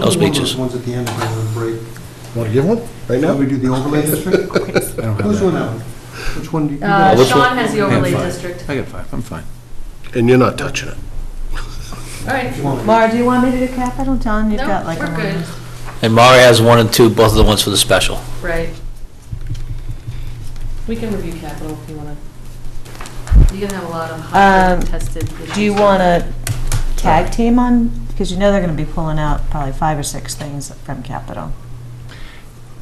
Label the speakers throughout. Speaker 1: I'll do one of
Speaker 2: speeches.
Speaker 1: those ones at the end of the break.
Speaker 3: Want to give one? Right
Speaker 1: When
Speaker 3: now?
Speaker 1: we do the overlay district?
Speaker 3: I don't have
Speaker 1: Who's
Speaker 3: that.
Speaker 1: doing that one? Which one do you
Speaker 4: Uh,
Speaker 1: guys?
Speaker 4: Sean has the overlay
Speaker 2: Yeah, fine.
Speaker 4: district.
Speaker 2: I got five, I'm fine.
Speaker 3: And you're not touching it.
Speaker 4: All right.
Speaker 5: Laura, do you want me to do capital, John? You've got
Speaker 4: No,
Speaker 5: like a
Speaker 4: we're
Speaker 5: line.
Speaker 4: good,
Speaker 2: And Mari has one and two, both of the ones for the special.
Speaker 4: right. We can review capital if you want to. You're going to have a lot of
Speaker 5: Um,
Speaker 4: hotly contested issues.
Speaker 5: Do you want to tag team on, because you know they're going to be pulling out probably five or six things from capital.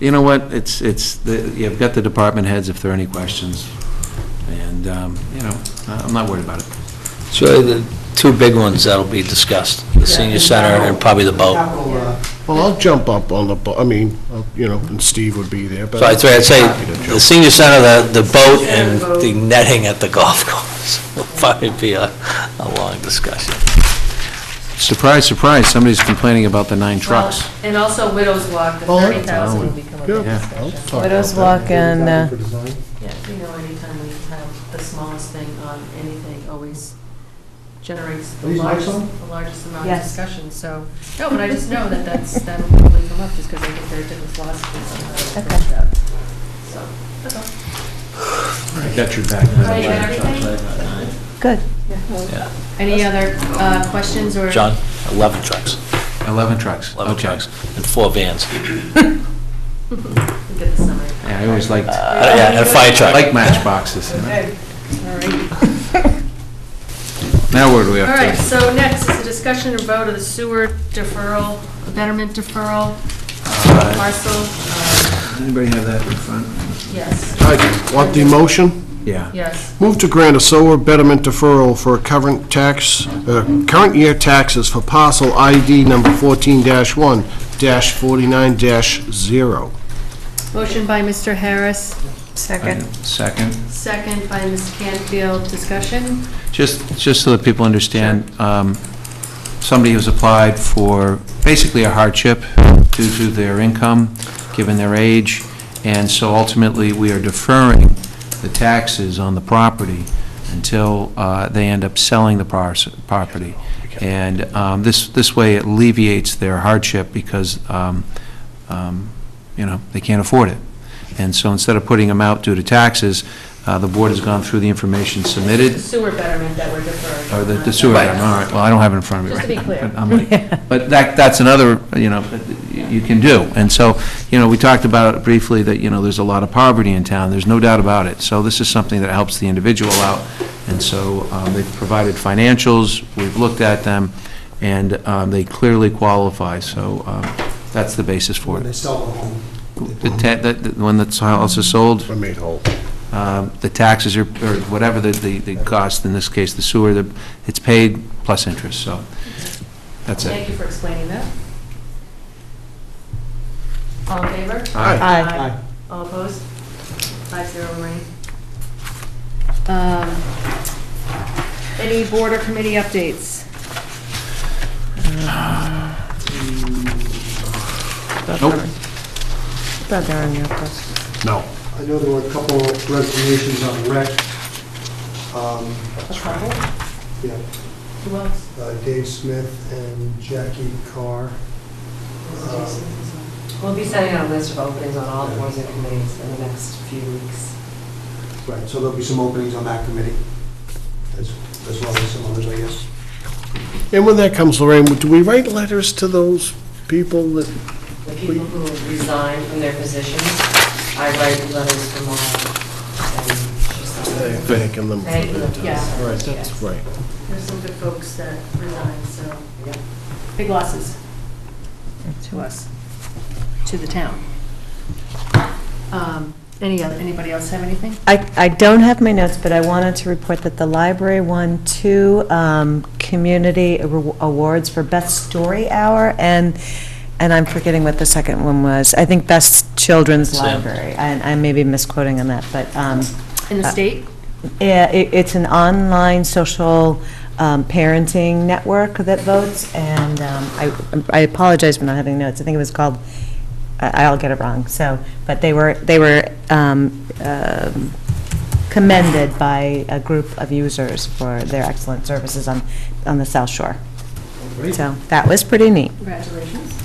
Speaker 2: You know what, it's, it's, the- you've got the department heads if there are any questions, and, um, you know, I- I'm not worried about it.
Speaker 6: It's really the two big ones that'll be discussed, the senior center and probably the boat.
Speaker 1: Capital, uh,
Speaker 3: Well, I'll jump up on the, bo- I mean, I'll- you know, and Steve would be there, but.
Speaker 6: So I'd say, I'd say
Speaker 3: Happy to jump.
Speaker 6: the senior center, the, the boat, and the netting at the golf course. Will probably be a, a long discussion.
Speaker 2: Surprise, surprise, somebody's complaining about the nine
Speaker 4: Well,
Speaker 2: trucks.
Speaker 4: And also Widows Walk, the
Speaker 3: Oh, I-
Speaker 4: 30,000 will be coming up.
Speaker 3: Yeah, Oh,
Speaker 2: Yeah.
Speaker 3: I'll talk about
Speaker 5: Widows
Speaker 3: that.
Speaker 5: Walk and, uh,
Speaker 1: for design.
Speaker 4: Yeah, you know, anytime we have the smallest thing on anything always generates the
Speaker 1: These
Speaker 4: largest,
Speaker 1: next one?
Speaker 4: the largest amount of
Speaker 5: Yes.
Speaker 4: discussion, so. No, but I just know that that's, that'll probably come up, just because I think there are different philosophies on how to approach
Speaker 5: Okay.
Speaker 4: that. So, that's all.
Speaker 2: Got your back.
Speaker 4: All right, you got everything?
Speaker 5: Good.
Speaker 6: Yeah.
Speaker 4: Any other uh, questions or?
Speaker 6: John, 11 trucks,
Speaker 2: 11 trucks,
Speaker 6: 11
Speaker 2: okay.
Speaker 6: trucks, and four vans.
Speaker 4: We'll Get the summary.
Speaker 2: Yeah, I always liked,
Speaker 6: Uh, Yeah, and a fire truck.
Speaker 2: like matchboxes. you know?
Speaker 4: All right.
Speaker 2: Now where do we
Speaker 4: All
Speaker 2: have to?
Speaker 4: right, so next is a discussion and vote of the sewer deferral, betterment deferral,
Speaker 2: Uh,
Speaker 4: parcel, uh,
Speaker 2: Anybody have that in front?
Speaker 4: yes,
Speaker 3: I Want the motion?
Speaker 2: Yeah.
Speaker 4: yes.
Speaker 3: Move to grant a solar betterment deferral for current tax, uh, current year taxes for parcel ID number fourteen one forty-nine 0
Speaker 4: Motion by Mr. Harris,
Speaker 5: Second.
Speaker 2: Second.
Speaker 4: second by Ms. Canfield, discussion.
Speaker 2: Just, just so that people understand, um, somebody who's applied for basically a hardship due to their income, given their age, and so ultimately, we are deferring the taxes on the property until uh, they end up selling the pars- property. And um, this, this way it alleviates their hardship because, um, um, you know, they can't afford it. And so instead of putting them out due to taxes, uh, the board has gone through the information submitted,
Speaker 4: The Sewer betterment that we're deferring.
Speaker 2: or Oh, the the sewer, all
Speaker 4: Right.
Speaker 2: right, well, I don't have it in front of me
Speaker 4: Just
Speaker 2: right
Speaker 4: to
Speaker 2: now.
Speaker 4: be clear.
Speaker 2: but I'm like- But that, that's another, you know, that you can do. And so, you know, we talked about it briefly, that, you know, there's a lot of poverty in town, there's no doubt about it. So this is something that helps the individual out, and so um, they've provided financials, we've looked at them, and um, they clearly qualify, so um, that's the basis for
Speaker 1: When they
Speaker 2: it.
Speaker 1: sell the home.
Speaker 2: The ta- the- the one that's house is sold,
Speaker 3: I made whole.
Speaker 2: um, the taxes are, or whatever the, the the cost, in this case, the sewer, the- it's paid plus interest, so that's it.
Speaker 4: Thank you for explaining that. All in favor?
Speaker 2: Aye.
Speaker 5: Aye.
Speaker 4: All opposed? Five zero, Lorraine. Um, Any board or committee updates?
Speaker 2: Nope.
Speaker 5: Thought they were in your post.
Speaker 3: No.
Speaker 1: I know there were a couple resignations on rec. Um,
Speaker 4: A couple?
Speaker 1: Yeah,
Speaker 4: Who else?
Speaker 1: uh, Dave Smith and Jackie Carr. Um,
Speaker 7: We'll be sending out a list of openings on all boards and committees in the next few weeks.
Speaker 1: Right, so there'll be some openings on that committee, as as well as some others, I guess.
Speaker 3: And when that comes, Lorraine, do we write letters to those people that,
Speaker 7: The people who resign from their positions, I write letters tomorrow. and she's not-
Speaker 3: they're thanking them? for
Speaker 7: Thank you,
Speaker 3: their time?
Speaker 4: Yeah.
Speaker 3: Right, that's right.
Speaker 4: There's some good folks that resigned, so.
Speaker 7: Yeah.
Speaker 4: Big losses
Speaker 5: To us.
Speaker 4: to the town. Um, Any, other? anybody else have anything?
Speaker 5: I, I don't have my notes, but I wanted to report that the library won two um, community awa- awards for Best Story Hour, and, and I'm forgetting what the second one was. I think Best Children's
Speaker 6: Sam.
Speaker 5: Library. I, I may be misquoting on that, but um,
Speaker 4: In the
Speaker 5: Uh,
Speaker 4: state?
Speaker 5: yeah, it- it's an online social um, parenting network that votes, and um, I I apologize for not having notes. I think it was called, I- I'll get it wrong, so, but they were, they were um, um, commended by a group of users for their excellent services on, on the South Shore. So that was pretty neat.
Speaker 4: Congratulations.